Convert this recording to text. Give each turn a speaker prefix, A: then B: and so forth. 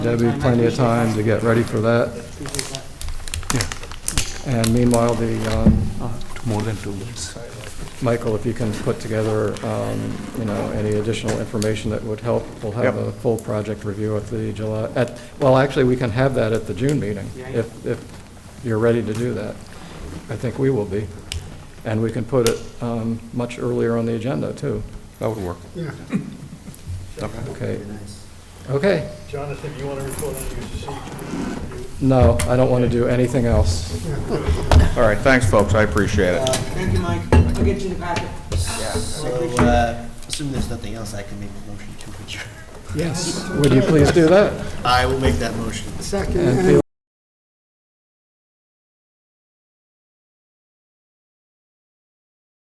A: There'll be plenty of time to get ready for that. And meanwhile, the, um,
B: More than two minutes.
A: Michael, if you can put together, um, you know, any additional information that would help, we'll have
B: Yep.
A: a full project review at the July, at, well, actually, we can have that at the June meeting, if, if you're ready to do that. I think we will be. And we can put it um, much earlier on the agenda, too.
B: That would work.
A: Okay. Okay.
C: Jonathan, you want to report on your procedure?
A: No, I don't want to do anything else.
B: All right, thanks, folks, I appreciate
D: Uh,
B: it.
D: Thank you, Mike. I'll get you the packet.
E: So, uh, assuming there's nothing else, I can make a motion to adjourn.
A: Yes. Would you please do that?
E: I will make that motion.
A: And feel